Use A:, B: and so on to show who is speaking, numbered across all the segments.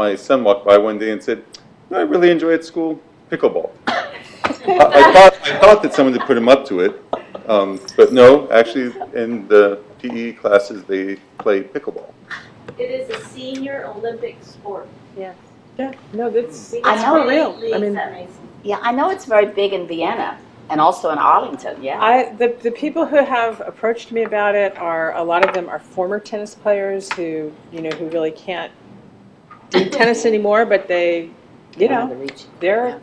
A: my son walked by one day and said, "You know what I really enjoy at school? Pickleball. I, I, thought, I thought that someone had put him up to it, um, but no, actually, in the PE classes, they play pickleball.
B: It is a senior Olympic sport.
C: Yes.
D: Yeah, no, that's,
B: We
E: I
B: have
E: know.
B: three
D: Real. Mm. I
B: leagues
D: mean-
B: that race.
E: Yeah, I know it's very big in Vienna and also in Arlington, yeah.
D: I, the, the people who have approached me about it are, a lot of them are former tennis players who, you know, who really can't do tennis anymore, but they, you know, they're,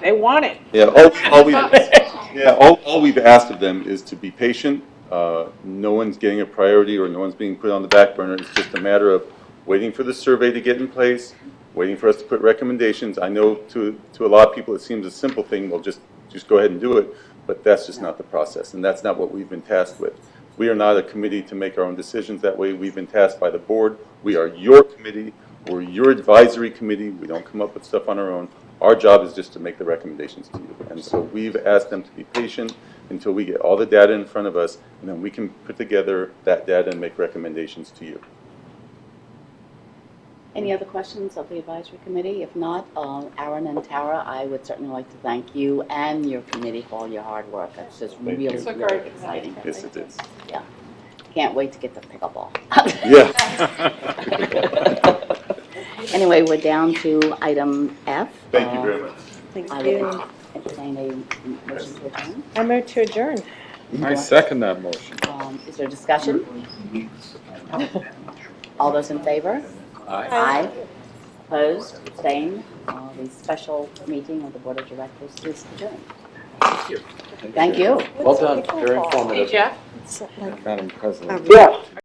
D: they want it.
A: Yeah, all, all we, yeah, all, all we've asked of them is to be patient. Uh, no one's getting a priority or no one's being put on the back burner. It's just a matter of waiting for the survey to get in place, waiting for us to put recommendations. I know to, to a lot of people, it seems a simple thing, well, just, just go ahead and do it, but that's just not the process, and that's not what we've been tasked with. We are not a committee to make our own decisions that way. We've been tasked by the board. We are your committee. We're your advisory committee. We don't come up with stuff on our own. Our job is just to make the recommendations to you. And so we've asked them to be patient until we get all the data in front of us, and then we can put together that data and make recommendations to you.
E: Any other questions of the advisory committee? If not, um, Aaron and Tara, I would certainly like to thank you and your committee for all your hard work. It's just
A: you.
E: really,
C: It's a
E: really
C: great
E: exciting.
A: Yes, it is.
E: Can't wait to get the pickleball.
A: Yeah.
E: Anyway, we're down to item F. Um,
A: Thank you very much.
D: Thank
E: I would entertain a motion to adjourn.
D: I move to adjourn.
F: I second that motion.
E: Um, Is there discussion? All those in favor? Aye. Opposed, abstained, Uh, the special meeting of the Board of Directors is adjourned. Thank you.
F: Well done, very informative.
C: Jeff?
F: Madam President.
D: Yeah.